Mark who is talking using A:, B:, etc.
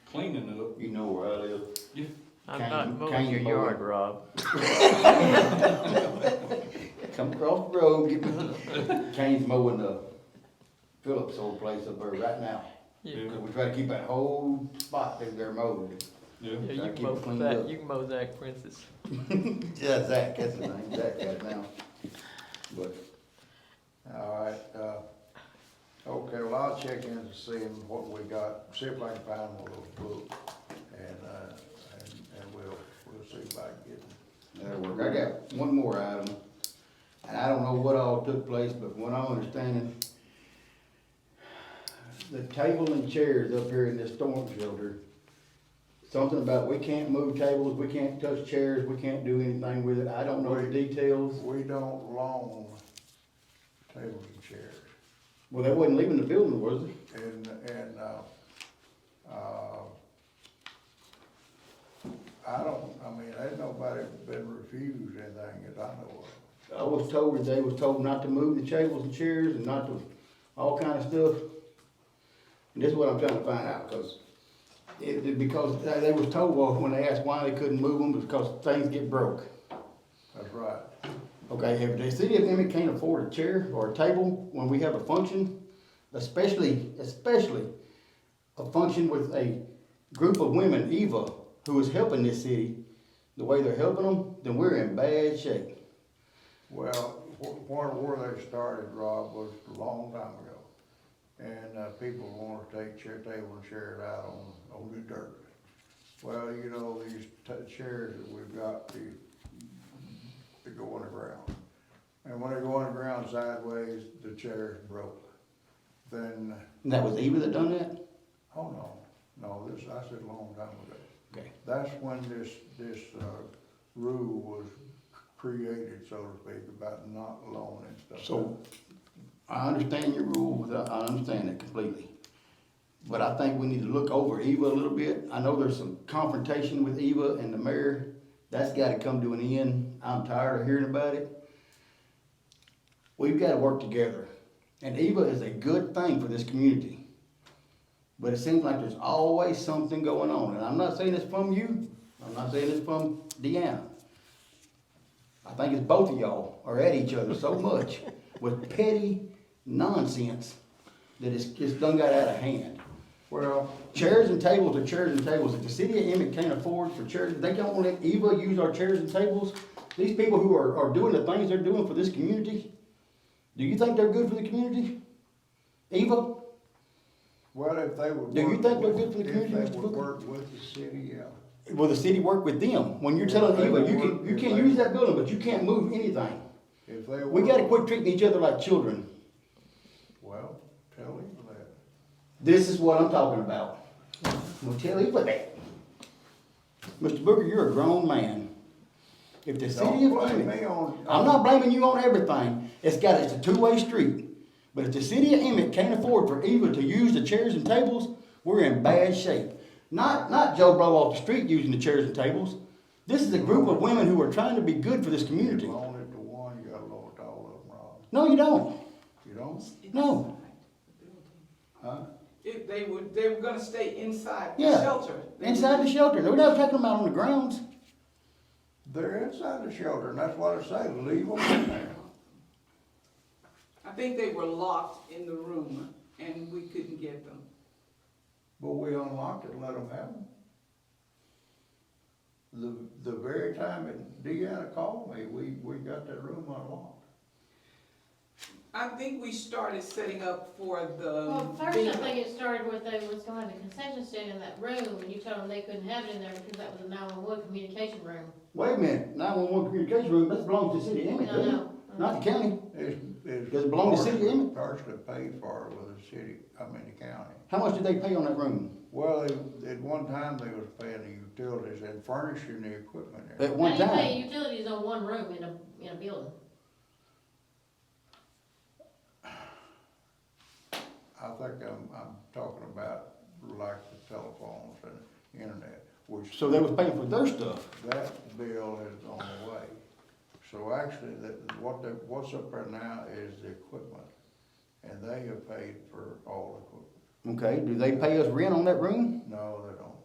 A: cleaning it up.
B: You know where I live.
C: I'm
B: Can-
C: not
B: can
C: mowing
B: you
C: your
B: mow
C: yard, Rob.
B: Come across the road, get me, Kane's mowing the Phillips old place up there right now.
C: You-
B: We try to keep that whole spot that they're mowed.
A: Yeah.
C: Yeah,
B: Gotta
C: you
B: keep
C: can
B: it
C: mow
B: cleaned
C: that,
B: up.
C: you can mow Zach Prince's.
B: Yeah, Zach, that's his name, Zach right now. But,
D: All right, uh, okay, well, I'll check in to see what we got, see if I can find one of those books. And, uh, and, and we'll, we'll see if I can get them.
B: that'll work. I got one more item. And I don't know what all took place, but what I'm understanding, the table and chairs up here in this storm shelter, something about we can't move tables, we can't touch chairs, we can't do anything with it. I don't know the details.
D: We don't loan tables and chairs.
B: Well, they wasn't leaving the building, was it?
D: And, and, uh, uh, I don't, I mean, ain't nobody been refused anything that I know of.
B: I was told that they was told not to move the tables and chairs and not to, all kind of stuff. And this is what I'm trying to find out, because it, it- because they, they was told, well, when they asked why they couldn't move them, because things get broke.
D: That's right.
B: Okay, if the city of Emmett can't afford a chair or a table when we have a function, especially, especially a function with a group of women, Eva, who is helping this city, the way they're helping them, then we're in bad shape.
D: Well, wh- where, where they started, Rob, was a long time ago. And, uh, people wanted to take chair, table and chairs out on, on the dirt. Well, you know, these t- chairs that we've got, they, they go on the ground. And when they go on the ground sideways, the chair's broke. Then,
B: And that was Eva that done that?
D: oh no, no, this, I said a long time ago.
B: Okay.
D: That's when this, this, uh, rule was created, so to speak, about not loaning stuff.
B: So, I understand your rule, I I understand it completely. But I think we need to look over Eva a little bit. I know there's some confrontation with Eva and the mayor. That's gotta come to an end. I'm tired of hearing about it. We've gotta work together. And Eva is a good thing for this community. But it seems like there's always something going on. And I'm not saying it's from you. I'm not saying it's from Deanna. I think it's both of y'all are at each other so much with petty nonsense that it's, it's done got out of hand.
D: Well,
B: Chairs and tables are chairs and tables. If the city of Emmett can't afford for chairs, they don't wanna let Eva use our chairs and tables. These people who are, are doing the things they're doing for this community, do you think they're good for the community? Eva,
D: well, if they would.
B: Do you
D: work
B: think they're
D: with-
B: good for the community,
D: If
B: Mr.
D: they would
B: Booker?
D: work with the city, yeah.
B: will the city work with them? When you're
D: Yeah,
B: telling
D: they
B: Eva,
D: will
B: you
D: work
B: can, you
D: if
B: can't
D: they-
B: use that building, but you can't move anything.
D: If they.
B: We
D: work-
B: gotta quit treating each other like children.
D: Well, tell him that.
B: This is what I'm talking about. Well, tell him what that. Mr. Booker, you're a grown man. If the city
D: Don't
B: of
D: blame me
B: Emmett,
D: on.
B: I'm not blaming you on everything. It's got, it's a two-way street. But if the city of Emmett can't afford for Eva to use the chairs and tables, we're in bad shape. Not, not Joe Blow off the street using the chairs and tables. This is a group of women who are trying to be good for this
D: You
B: community.
D: loan it to one, you gotta loan it to all of them, Rob.
B: No, you don't.
D: You don't?
B: No.
D: Huh?
E: If they were, they were gonna stay inside the
B: Yeah.
E: shelter. They
B: Inside the shelter. We're not taking them out on the grounds.
D: They're inside the shelter, and that's what I say, leave them in there.
E: were- I think they were locked in the room and we couldn't get them.
D: But we unlocked it and let them have them. The, the very time that Deanna called me, we, we got that room unlocked.
E: I think we started setting up for the.
F: Well, first, I
E: the-
F: think it started with they was gonna have a concession stand in that room, and you told them they couldn't have it in there because that was a nine-one-one communication room.
B: Wait a minute, nine-one-one communication room, that belongs to the city of Emmett,
F: No,
B: doesn't it?
F: no.
B: Oh Not the county.
D: It's, it's.
B: Does it belong to the city, isn't
D: Partially paid for with the city, I mean, the county.
B: How much did they pay on that room?
D: Well, they, at one time, they was paying the utilities and furnishing the equipment there.
B: At
F: How
B: one
F: do you pay
B: time?
F: utilities on one room in a, in a building?
D: I think I'm, I'm talking about like the telephones and internet, which.
B: So they was paying for their stuff.
D: That bill is on the way. So actually, that, what they, what's up there now is the equipment, and they have paid for all the equipment.
B: Okay, do they pay us rent on that room?
D: No, they don't.